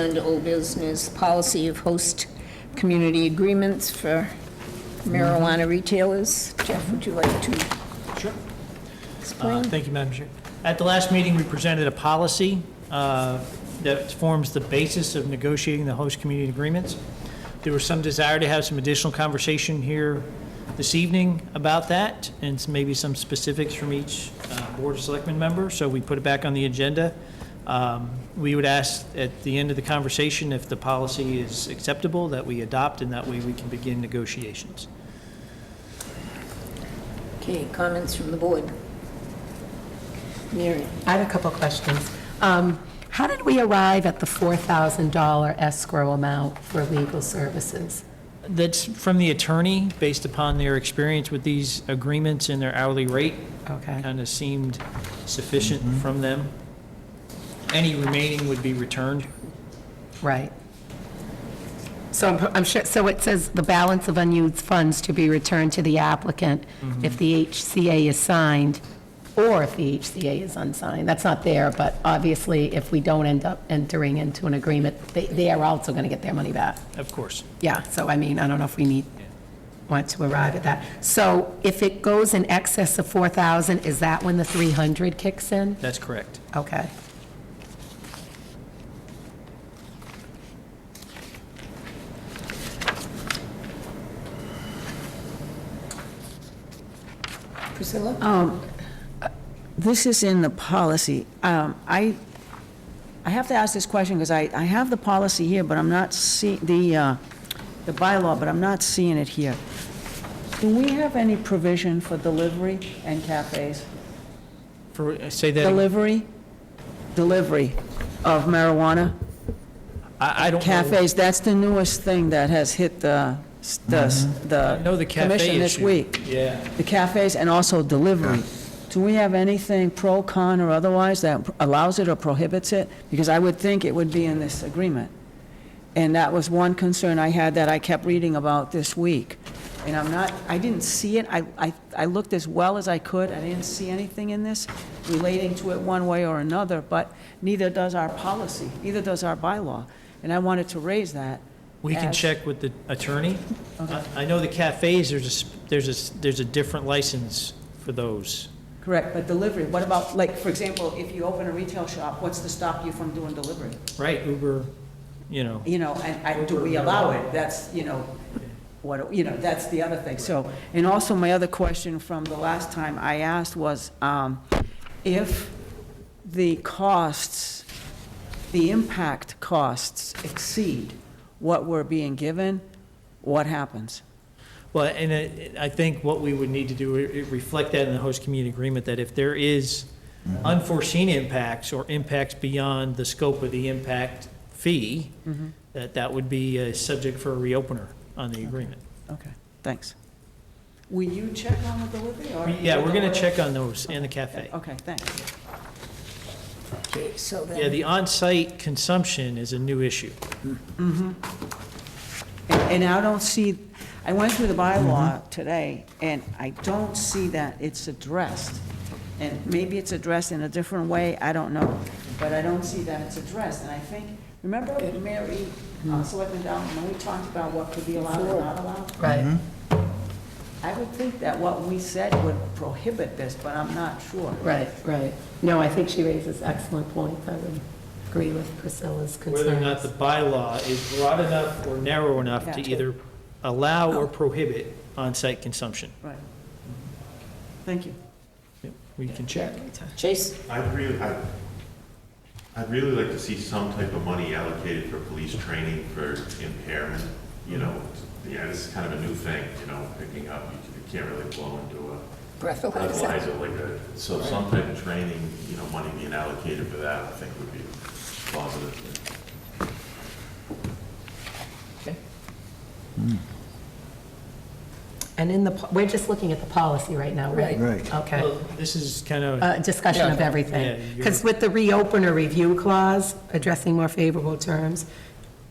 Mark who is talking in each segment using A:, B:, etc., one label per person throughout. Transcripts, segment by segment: A: Under old business, policy of host community agreements for marijuana retailers. Jeff, would you like to
B: Sure. Uh,
A: explain?
B: Thank you, Madam Chair. At the last meeting, we presented a policy uh, that forms the basis of negotiating the host community agreements. There was some desire to have some additional conversation here this evening about that, and s- maybe some specifics from each uh, Board of Selectmen member, so we put it back on the agenda. Um, We would ask at the end of the conversation if the policy is acceptable, that we adopt, and that way we can begin negotiations.
A: Okay, comments from the board? Mary?
C: I have a couple of questions. Um, How did we arrive at the $4,000 escrow amount for legal services?
B: That's from the attorney, based upon their experience with these agreements and their hourly rate.
C: Okay.
B: Kind of seemed sufficient from them. Any remaining would be returned.
C: Right. So I'm- I'm sure, so it says the balance of unused funds to be returned to the applicant if the HCA is signed or if the HCA is unsigned. That's not there, but obviously, if we don't end up entering into an agreement, they- they are also going to get their money back.
B: Of course,
C: Yeah, so I mean, I don't know if we need, want to arrive at that. So if it goes in excess of 4,000, is that when the 300 kicks in?
B: that's correct.
C: Okay.
A: Priscilla?
D: This is in the policy. Um, I, I have to ask this question because I, I have the policy here, but I'm not see, the, uh, the bylaw, but I'm not seeing it here. Do we have any provision for delivery and cafes?
B: For, say that, I,
D: Delivery? Delivery of marijuana?
B: I don't know.
D: Cafes, that's the newest thing that has hit the, s- the, s-
B: Mm-hmm. I know the
D: the
B: cafe
D: commission this
B: issue.
D: week.
B: Yeah,
D: The cafes and also delivery. Do we have anything pro, con, or otherwise that allows it or prohibits it? Because I would think it would be in this agreement. And that was one concern I had that I kept reading about this week. And I'm not, I didn't see it, I, I, I looked as well as I could, I didn't see anything in this relating to it one way or another, but neither does our policy, neither does our bylaw. And I wanted to raise that.
B: we can
D: as-
B: check with the attorney. I I know the cafes, there's a, s- there's a, s- there's a different license for those.
D: Correct, but delivery, what about, like, for example, if you open a retail shop, what's to stop you from doing delivery?
B: Right, Uber, you know,
D: You know, and, and do we allow it? That's, you know, what, you know, that's the other thing, so. And also, my other question from the last time I asked was, um, if the costs, the impact costs exceed what we're being given, what happens?
B: Well, and it- I think what we would need to do, is reflect that in the host community agreement, that if there is unforeseen impacts or impacts beyond the scope of the impact fee, that that would be a subject for a reopener on the agreement.
D: Okay, thanks. Will you check on the delivery, or?
B: Yeah, we're going to check on those in the cafe.
D: Okay, thanks.
A: Okay, so
B: Yeah,
A: then,
B: the on-site consumption is a new issue.
D: And and I don't see, I went through the bylaw today, and I don't see that it's addressed. And maybe it's addressed in a different way, I don't know, but I don't see that it's addressed. And I think, remember Mary, uh, Selectman Down, when we talked about what could be allowed and not allowed?
C: Right.
D: I would think that what we said would prohibit this, but I'm not sure.
C: Right, right. No, I think she raises excellent points. I would agree with Priscilla's concerns.
B: Whether or not the bylaw is broad enough or narrow enough to
D: Yeah.
B: either allow or prohibit on-site consumption.
D: Right. Thank you.
B: Yep, We can check.
A: Chase?
E: I'd really, I'd, I'd really like to see some type of money allocated for police training for impairment, you know, yeah, this is kind of a new thing, you know, picking up, you can't really blow into a
A: Breathalyzer.
E: breathalyzer like a, so some type of training, you know, money being allocated for that, I think would be positive.
C: And in the, po- we're just looking at the policy right now, right?
F: Right.
C: Okay.
B: Well, This is kind of.
C: Uh, Discussion of
B: Yeah,
C: everything.
B: you're-
C: Because with the reopener review clause, addressing more favorable terms,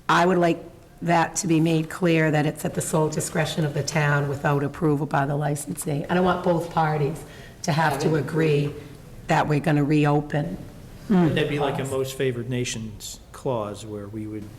C: I would like that to be made clear that it's at the sole discretion of the town without approval by the licensee. I don't want both parties to have to agree that we're going to reopen.
B: That'd be like a most favored nations clause where we would